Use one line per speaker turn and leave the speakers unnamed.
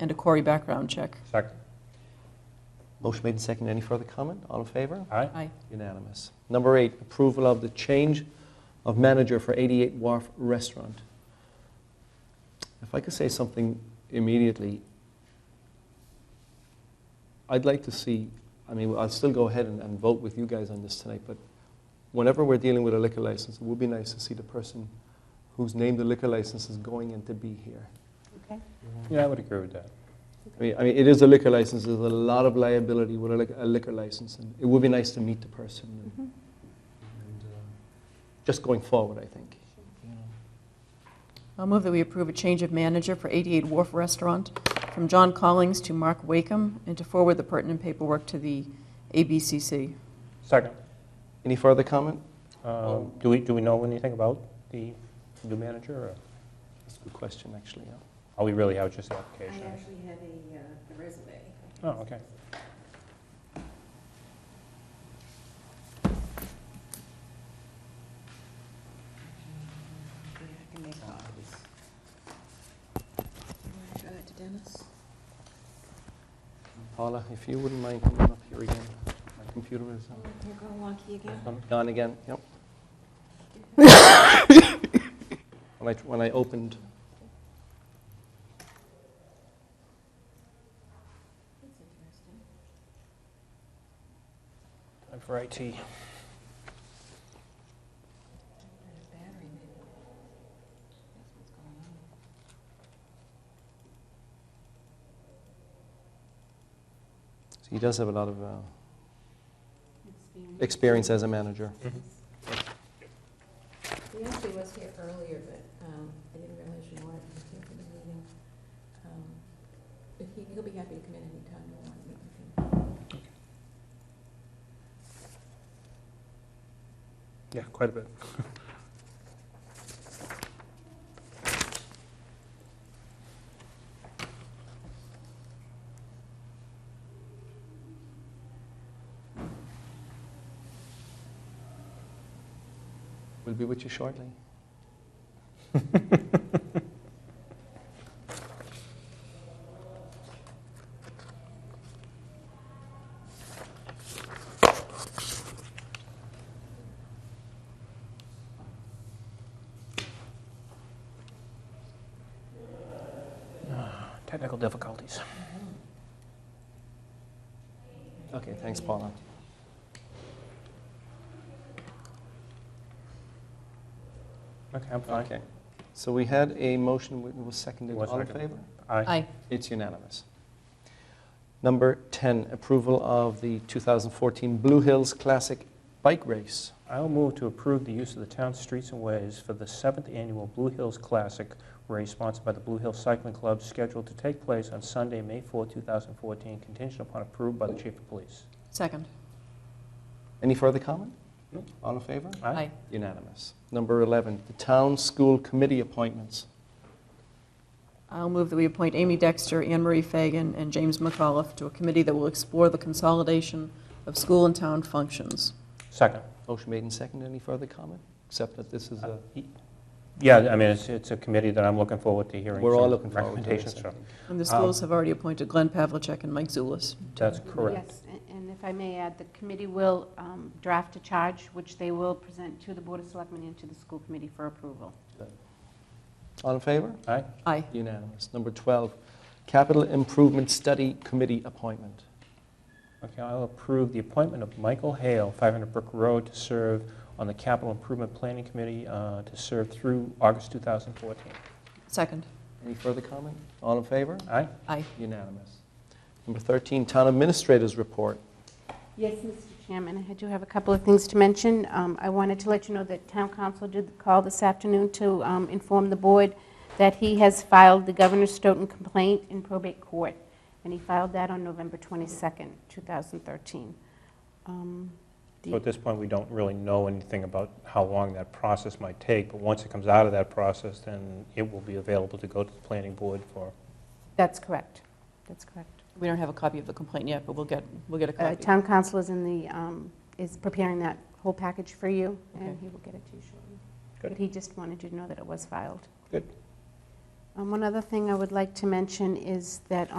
and a Corey background check.
Second.
Motion made and seconded. Any further comment? All in favor?
Aye.
Aye.
Unanimous. Number eight, approval of the change of manager for 88 Wharf Restaurant. If I could say something immediately, I'd like to see, I mean, I'll still go ahead and, and vote with you guys on this tonight, but whenever we're dealing with a liquor license, it would be nice to see the person whose name the liquor license is going in to be here.
Okay.
Yeah, I would agree with that.
I mean, I mean, it is a liquor license, there's a lot of liability with a lic- a liquor license, and it would be nice to meet the person. and-
Mhm.
and, uh, just going forward, I think.
I'll move that we approve a change of manager for 88 Wharf Restaurant from John Collings to Mark Wakeham, and to forward the pertinent paperwork to the ABCC.
Second.
Any further comment?
Um, Do we, do we know anything about the new manager? or
That's a good question, actually. yeah.
Are we really out just the
I
application?
actually have a, uh, a resume.
Oh, okay.
Yeah, I can make copies. You wanna show that to Dennis?
Paula, if you wouldn't mind coming up here again. My computer is uh,
You're going wonky again?
gone again, yep. When I, when I opened,
That's interesting.
Time for IT.
There's a battery maybe. That's what's going on.
so he does have a lot of uh,
Experience.
experience as a manager.
He actually was here earlier, but um, I didn't realize you weren't, he came to the meeting. Um, But he, he'll be happy to come in anytime you want, we can,
Yeah, quite a bit.
We'll be with you shortly.
Technical difficulties.
Okay, thanks, Paula.
Okay, I'm fine.
Okay. So we had a motion, it was seconded.
Was
All in
seconded.
favor?
Aye.
Aye.
It's unanimous. Number 10, approval of the 2014 Blue Hills Classic Bike Race.
I'll move to approve the use of the town's streets and ways for the seventh annual Blue Hills Classic race sponsored by the Blue Hills Cycling Club, scheduled to take place on Sunday, May 4, 2014, contingent upon approved by the chief of police.
Second.
Any further comment?
No.
All in favor?
Aye.
Unanimous. Number 11, the Town School Committee appointments.
I'll move that we appoint Amy Dexter, Anne Marie Fagan, and James McAuliffe to a committee that will explore the consolidation of school and town functions.
Second.
Motion made and seconded. Any further comment? Except that this is a,
Yeah, I mean, it's, it's a committee that I'm looking forward to hearing.
we're all
some
looking forward to this.
Recommendations from.
And the
Um,
schools have already appointed Glenn Pavlicek and Mike Zulus.
That's correct.
Yes, a- and if I may add, the committee will um, draft a charge, which they will present to the Board of Selectmen and to the school committee for approval.
All in favor?
Aye.
Aye.
Unanimous. Number 12, Capital Improvement Study Committee appointment.
Okay, I'll approve the appointment of Michael Hale, 500 Brook Road, to serve on the Capital Improvement Planning Committee, uh, to serve through August 2014.
Second.
Any further comment? All in favor?
Aye?
Aye.
Unanimous. Number 13, Town Administrators Report.
Yes, Mr. Chairman, I do have a couple of things to mention. Um, I wanted to let you know that Town Council did call this afternoon to um, inform the board that he has filed the Governor Stoughton complaint in probate court, and he filed that on November 22nd, 2013. Um,
So at this point, we don't really know anything about how long that process might take, but once it comes out of that process, then it will be available to go to the planning board for,
That's correct. That's correct.
We don't have a copy of the complaint yet, but we'll get, we'll get a
Uh,
copy.
Town council is in the, um, is preparing that whole package for you,
Okay.
and he will get it to you shortly.
Good.
But he just wanted you to know that it was filed.
Good.
Um, One other thing I would like to mention is that